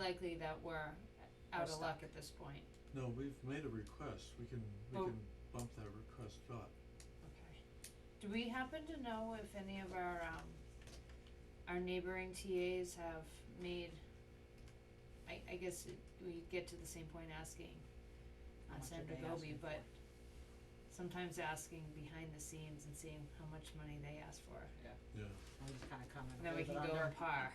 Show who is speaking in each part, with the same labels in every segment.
Speaker 1: likely that we're
Speaker 2: We're
Speaker 1: out of
Speaker 2: stuck.
Speaker 1: luck at this point,
Speaker 3: No, we've made a request, we can, we
Speaker 1: Oh.
Speaker 3: can bump that request up.
Speaker 1: okay. Do we happen to know if any of our um our neighboring TAs have made I I guess it, we get to the same point asking
Speaker 2: How
Speaker 1: on
Speaker 2: much are
Speaker 1: Sandra
Speaker 2: they
Speaker 1: Goby,
Speaker 2: asking
Speaker 1: but
Speaker 2: for?
Speaker 1: sometimes asking behind the scenes and seeing how much money they ask for.
Speaker 3: Yeah,
Speaker 2: We just kinda come
Speaker 1: And
Speaker 2: in a
Speaker 1: then we
Speaker 2: little
Speaker 1: can
Speaker 2: bit
Speaker 1: go
Speaker 2: under.
Speaker 1: on par.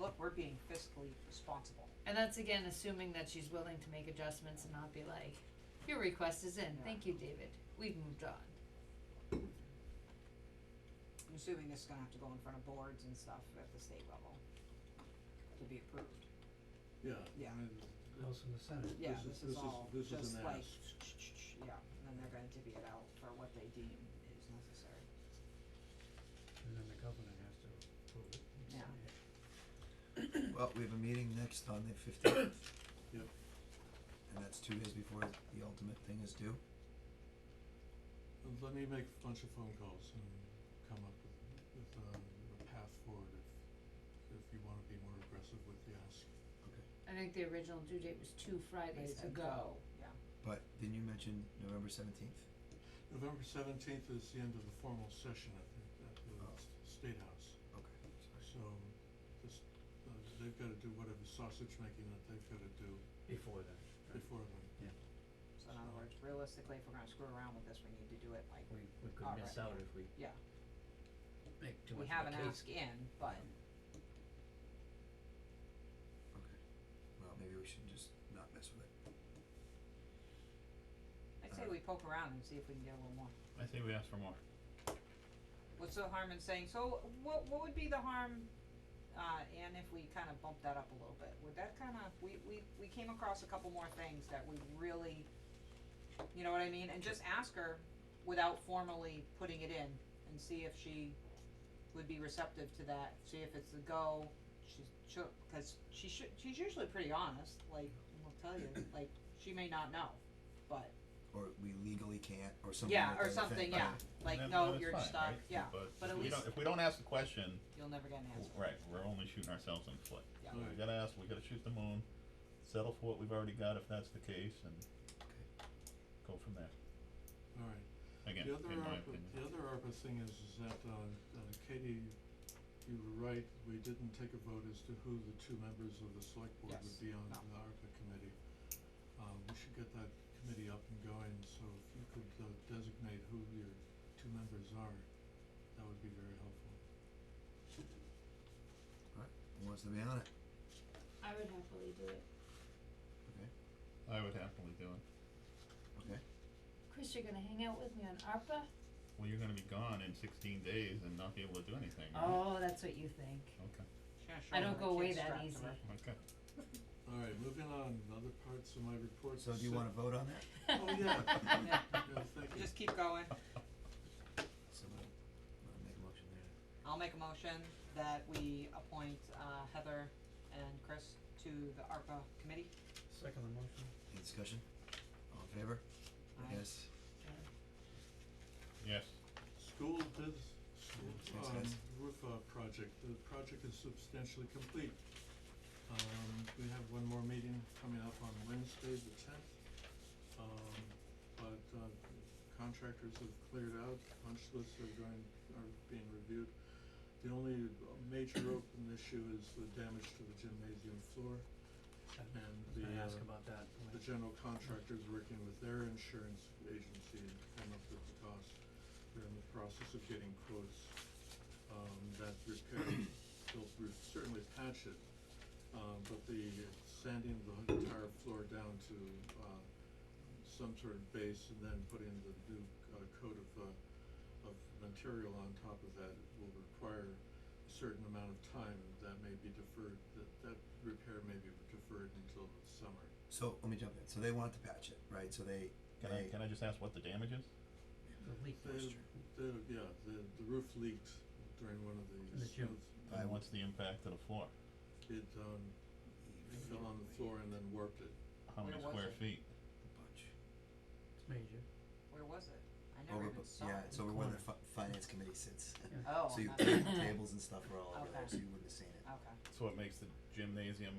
Speaker 2: Look, we're being fiscally responsible.
Speaker 1: And that's again assuming that she's willing to make adjustments and not be like, your request is in,
Speaker 2: Yeah.
Speaker 1: thank you, David, we've moved on.
Speaker 2: I'm assuming this is gonna have to go in front of boards and stuff at the state level to be approved.
Speaker 3: yeah,
Speaker 2: Yeah.
Speaker 3: I mean,
Speaker 4: House in the Senate.
Speaker 2: Yeah,
Speaker 3: This is-
Speaker 2: this
Speaker 3: this
Speaker 2: is
Speaker 3: is-
Speaker 2: all
Speaker 3: this is
Speaker 2: just
Speaker 3: an
Speaker 2: like,
Speaker 3: ask.
Speaker 2: yeah, and then they're gonna divvy it out for what they deem is necessary.
Speaker 4: And then the governor has to approve it. and
Speaker 2: Yeah.
Speaker 4: sign it.
Speaker 5: Well, we have a meeting next on the fifteenth.
Speaker 3: Yep.
Speaker 5: And that's two days before the ultimate thing is due.
Speaker 3: let me make a bunch of phone calls and come up with, with, um, a path forward if, if you wanna be more aggressive with the ask.
Speaker 1: I think the original due date was two Fridays
Speaker 2: Days
Speaker 1: ago.
Speaker 2: Yeah,
Speaker 5: But didn't you mention November seventeenth?
Speaker 3: November seventeenth is the end of the formal session at the, at the
Speaker 5: Oh.
Speaker 3: s- State House,
Speaker 5: Okay, sorry.
Speaker 3: so this, uh, they've gotta do whatever sausage making that they've gotta do
Speaker 4: Before then, right,
Speaker 3: before then.
Speaker 2: so in other words, realistically, if we're gonna screw around with this, we need to do it like,
Speaker 6: We we could
Speaker 2: Alright.
Speaker 6: miss out if we
Speaker 2: yeah,
Speaker 6: make too
Speaker 2: we
Speaker 6: much
Speaker 2: have
Speaker 6: of a
Speaker 2: an
Speaker 6: case.
Speaker 2: ask in, but
Speaker 5: Okay. Well, maybe we should just not mess with it.
Speaker 2: I'd say we poke around and see if we can get a little more.
Speaker 7: I think we asked for more.
Speaker 2: What's the harm in saying, so what what would be the harm, uh, Ann, if we kinda bumped that up a little bit, would that kinda, we we we came across a couple more things that we really, you know what I mean, and just ask her without formally putting it in and see if she would be receptive to that, see if it's a go, she's she'll, cause she should, she's usually pretty honest, like, I'll tell you, like, she may not know, but,
Speaker 5: Or we legally can't, or something
Speaker 2: yeah,
Speaker 5: like that.
Speaker 2: or
Speaker 5: I
Speaker 2: something,
Speaker 5: think.
Speaker 2: yeah, like, no, you're
Speaker 7: stuck.
Speaker 2: stuck, yeah, but at
Speaker 7: if we
Speaker 2: least
Speaker 7: don't, if we don't ask the question,
Speaker 2: you'll never get an answer.
Speaker 7: w- right, we're only shooting ourselves in the foot.
Speaker 2: Yeah.
Speaker 7: So we gotta ask, we gotta shoot the moon, settle for what we've already got if that's the case, and go from there.
Speaker 3: Alright,
Speaker 7: Again,
Speaker 3: The other
Speaker 7: in my
Speaker 3: ARPA,
Speaker 7: opinion.
Speaker 3: the other ARPA thing is, is that, uh, uh, Katie, you were right, we didn't take a vote as to who the two members of the select board would
Speaker 2: Yes,
Speaker 3: be on
Speaker 2: no.
Speaker 3: the ARPA committee. Uh, we should get that committee up and going, so if you could, uh, designate who your two members are, that would be very helpful.
Speaker 5: Who wants to be on it?
Speaker 1: I would happily do it.
Speaker 5: Okay,
Speaker 7: I would happily do it.
Speaker 5: okay.
Speaker 1: Chris, you're gonna hang out with me on ARPA?
Speaker 7: Well, you're gonna be gone in sixteen days and not be able to do anything, right?
Speaker 1: Oh, that's what you think.
Speaker 7: Okay,
Speaker 1: I don't go away that easy.
Speaker 7: okay.
Speaker 3: Alright, moving on, other parts of my report.
Speaker 5: So do you
Speaker 3: sit-
Speaker 5: wanna vote on that?
Speaker 3: Oh, yeah.
Speaker 2: Yeah.
Speaker 3: Yeah, thank you.
Speaker 2: Just keep going.
Speaker 5: Somebody, wanna make a motion there?
Speaker 2: I'll make a motion that we appoint uh, Heather and Chris to the ARPA committee.
Speaker 4: Second the motion.
Speaker 5: Any discussion? All in favor?
Speaker 2: Aye.
Speaker 5: Yes.
Speaker 7: Yes,
Speaker 3: School did, school,
Speaker 5: Thanks,
Speaker 3: um,
Speaker 5: guys.
Speaker 3: roof, uh, project, the project is substantially complete. Um, we have one more meeting coming up on Wednesday, the tenth. Um, but, uh, contractors have cleared out, punch lists are going, are being reviewed. The only uh, major open issue is the damage to the gymnasium floor
Speaker 4: I
Speaker 3: and
Speaker 4: was
Speaker 3: the,
Speaker 4: gonna ask
Speaker 3: uh,
Speaker 4: about that.
Speaker 3: the general contractor's working with their insurance agency and come up with the cost. They're in the process of getting quotes, um, that repair, they'll re- certainly patch it. Um, but the sanding the entire floor down to, uh, some sort of base and then putting the new, uh, coat of, uh, of material on top of that will require a certain amount of time. That may be deferred, that, that repair may be deferred until the summer.
Speaker 5: So, let me jump in, so they want to patch it, right, so they,
Speaker 7: can I,
Speaker 5: they,
Speaker 7: can I just ask what the damage is?
Speaker 4: The leak
Speaker 3: The,
Speaker 4: moisture.
Speaker 3: the, yeah, the, the roof leaked during one of these.
Speaker 4: the gym.
Speaker 3: floods.
Speaker 5: I
Speaker 7: And
Speaker 5: would-
Speaker 7: what's the impact to the floor?
Speaker 3: It, um, it fell on the floor and then warped it.
Speaker 7: How
Speaker 2: Where
Speaker 7: many
Speaker 2: was
Speaker 7: square
Speaker 2: it?
Speaker 7: feet?
Speaker 5: a bunch.
Speaker 4: It's major.
Speaker 2: Where was it? I
Speaker 5: Over,
Speaker 2: never
Speaker 5: bu-
Speaker 2: even saw it.
Speaker 5: yeah, it's over where the
Speaker 4: Corner.
Speaker 5: fi- finance committee sits.
Speaker 2: Oh,
Speaker 5: So you,
Speaker 2: not-
Speaker 5: tables and stuff were all over
Speaker 2: Okay.
Speaker 5: there, so you wouldn't have seen it.
Speaker 2: okay.
Speaker 7: So it makes the gymnasium